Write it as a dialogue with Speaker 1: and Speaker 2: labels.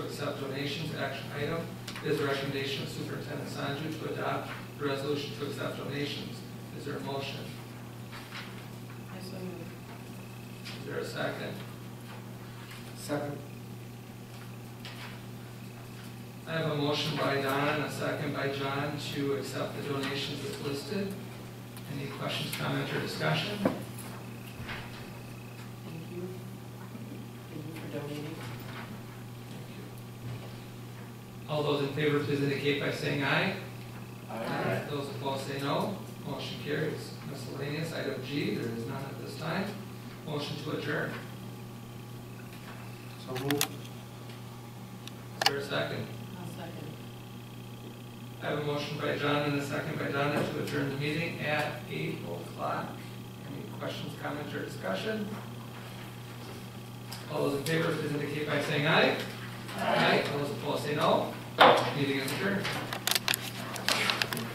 Speaker 1: accept donations, action item. It is the recommendation of Superintendent Sanju to adopt the resolution to accept donations. Is there a motion?
Speaker 2: I so move.
Speaker 1: Is there a second?
Speaker 3: Second.
Speaker 1: I have a motion by Donna and a second by John to accept the donations as listed. Any questions, comments, or discussion?
Speaker 2: Thank you. Thank you for donating.
Speaker 1: All those in favor, please indicate by saying aye.
Speaker 2: Aye.
Speaker 1: Those opposed say no. Motion carries. Miscellaneous, item G, there is none at this time. Motion to adjourn.
Speaker 3: So moved.
Speaker 1: Is there a second?
Speaker 2: I'll second.
Speaker 1: I have a motion by John and a second by Donna to adjourn the meeting at eight o'clock. Any questions, comments, or discussion? All those in favor, please indicate by saying aye. Aye. All those opposed say no. Meeting is adjourned.